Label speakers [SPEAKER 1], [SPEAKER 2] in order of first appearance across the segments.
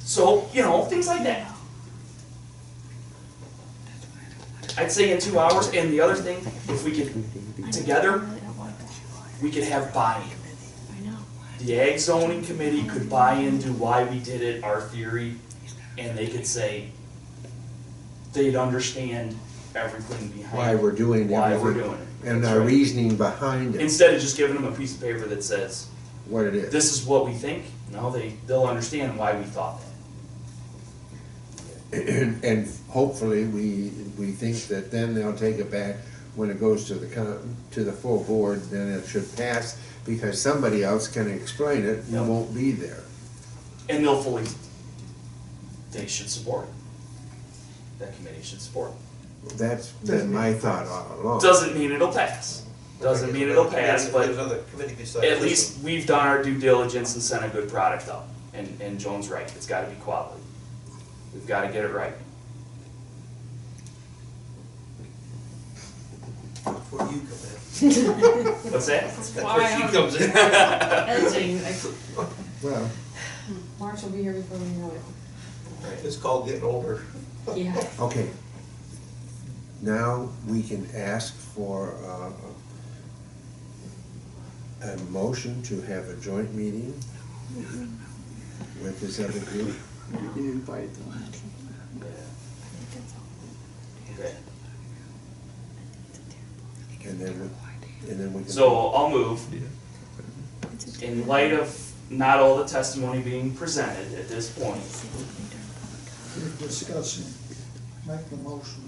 [SPEAKER 1] So, you know, things like that. I'd say in two hours, and the other thing, if we could, together, we could have buy-in.
[SPEAKER 2] I know.
[SPEAKER 1] The ag zoning committee could buy into why we did it, our theory, and they could say they'd understand everything
[SPEAKER 3] why
[SPEAKER 1] behind
[SPEAKER 3] we're doing
[SPEAKER 1] why we're
[SPEAKER 3] everything
[SPEAKER 1] doing it.
[SPEAKER 3] and
[SPEAKER 1] That's
[SPEAKER 3] our
[SPEAKER 1] right.
[SPEAKER 3] reasoning behind it,
[SPEAKER 1] Instead of just giving them a piece of paper that says,
[SPEAKER 3] what it is.
[SPEAKER 1] this is what we think, now they, they'll understand why we thought that.
[SPEAKER 3] And hopefully, we, we think that then they'll take it back when it goes to the con, to the full board, then it should pass because somebody else can explain it, you
[SPEAKER 1] Yep.
[SPEAKER 3] won't be there.
[SPEAKER 1] And they'll fully, they should support it. That committee should support it.
[SPEAKER 3] That's been my thought all along.
[SPEAKER 1] Doesn't mean it'll pass. Doesn't mean it'll pass,
[SPEAKER 4] There's
[SPEAKER 1] but
[SPEAKER 4] another committee besides
[SPEAKER 1] at
[SPEAKER 4] this
[SPEAKER 1] least we've done our due diligence and sent a good product up. And, and Joan's right, it's gotta be quality. We've gotta get it right.
[SPEAKER 4] one Before you come in.
[SPEAKER 1] What's that?
[SPEAKER 4] Before she comes in.
[SPEAKER 2] Editing, I,
[SPEAKER 3] Well,
[SPEAKER 2] March will be here before we know it.
[SPEAKER 4] It's called getting older.
[SPEAKER 2] Yeah.
[SPEAKER 3] okay. Now, we can ask for, uh, a motion to have a joint meeting with this other group.
[SPEAKER 5] You can invite them.
[SPEAKER 1] Okay.
[SPEAKER 3] And then, we- and then we can.
[SPEAKER 1] So I'll move. In light of not all the testimony being presented at this point,
[SPEAKER 5] You're discussing, make the motion.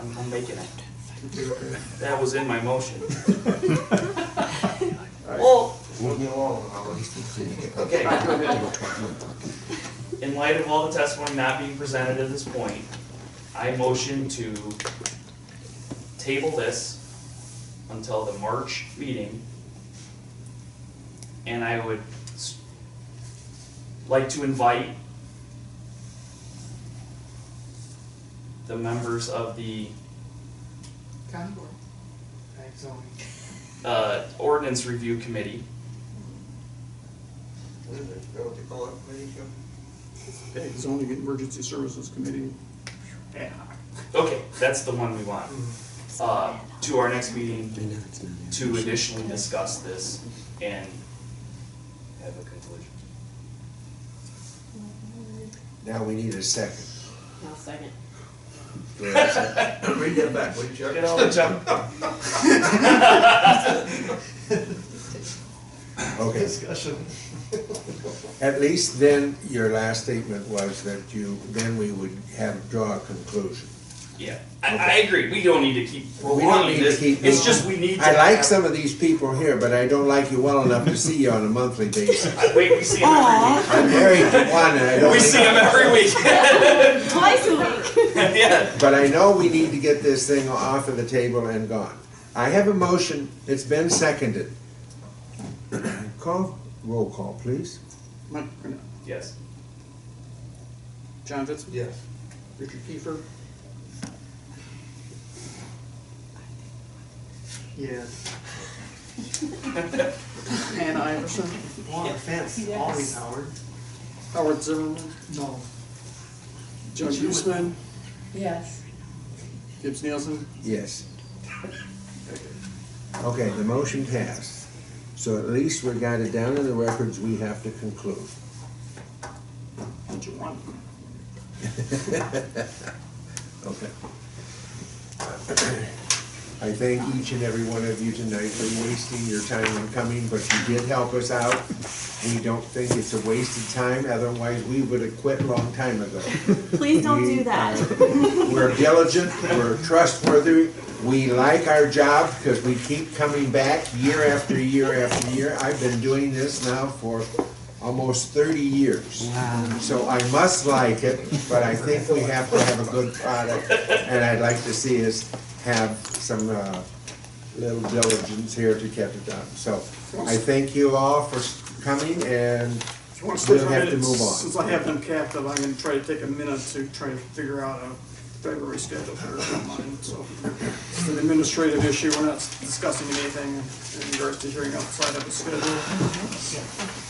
[SPEAKER 1] I'm, I'm making it. That was in my motion. Well,
[SPEAKER 4] Move me along, Howard.
[SPEAKER 1] okay. In light of all the testimony not being presented at this point, I motion to table this until the March meeting. And I would s- like to invite the members of the
[SPEAKER 2] Concord.
[SPEAKER 1] uh, ordinance review committee.
[SPEAKER 4] What is it? Is that what they call it, committee, Jim?
[SPEAKER 5] Okay, zoning emergency services committee.
[SPEAKER 1] Okay, that's the one we want. Uh, to our next meeting to additionally discuss this and have a conclusion.
[SPEAKER 3] Now we need a second.
[SPEAKER 2] Now, second.
[SPEAKER 3] Do we have a second?
[SPEAKER 4] Read that back, would you, Chuck?
[SPEAKER 1] Get all the junk.
[SPEAKER 3] Okay,
[SPEAKER 4] Discussion.
[SPEAKER 3] at least then, your last statement was that you, then we would have, draw a conclusion.
[SPEAKER 1] Yeah, I, I agree, we don't need to keep
[SPEAKER 3] We don't
[SPEAKER 1] prolonging
[SPEAKER 3] need to
[SPEAKER 1] this,
[SPEAKER 3] keep
[SPEAKER 1] it's
[SPEAKER 3] moving.
[SPEAKER 1] just we need to.
[SPEAKER 3] I like
[SPEAKER 1] have-
[SPEAKER 3] some of these people here, but I don't like you well enough to see you on a monthly basis.
[SPEAKER 1] I- Wait, we see them every week.
[SPEAKER 3] I'm married to one, and I don't
[SPEAKER 1] We see
[SPEAKER 3] think,
[SPEAKER 1] them every week.
[SPEAKER 2] Twice a week.
[SPEAKER 1] Yeah,
[SPEAKER 3] but I know we need to get this thing off of the table and gone. I have a motion, it's been seconded. Call, roll call, please.
[SPEAKER 5] Mike, Grinnell.
[SPEAKER 1] yes.
[SPEAKER 5] John Vitzman.
[SPEAKER 4] Yes.
[SPEAKER 5] Richard Kiefer. Yes. Ann Iverson.
[SPEAKER 6] Long offense, always Howard.
[SPEAKER 5] Howard Zimmerman.
[SPEAKER 6] No.
[SPEAKER 5] Joe Huesman.
[SPEAKER 2] Yes.
[SPEAKER 5] Gibbs Nielsen.
[SPEAKER 3] Yes. Okay, the motion passed. So at least we got it down in the records, we have to conclude.
[SPEAKER 5] Did you want?
[SPEAKER 3] Okay. I thank each and every one of you tonight for wasting your time on coming, but you did help us out. We don't think it's a wasted time, otherwise we would have quit a long time ago.
[SPEAKER 2] Please don't
[SPEAKER 3] We
[SPEAKER 2] do that.
[SPEAKER 3] are- We're diligent, we're trustworthy, we like our job because we keep coming back year after year after year. I've been doing this now for almost thirty years. So I must like it, but I think we have to have a good product. And I'd like to see us have some, uh, little diligence here to get it done. So I thank you all for coming and
[SPEAKER 5] If you want to
[SPEAKER 3] We'll
[SPEAKER 5] stay for a
[SPEAKER 3] have to
[SPEAKER 5] minute,
[SPEAKER 3] move on.
[SPEAKER 5] since I have them captive, I'm gonna try to take a minute to try to figure out a February schedule for mine, so. It's an administrative issue, we're not discussing anything in regards to hearing outside of the schedule.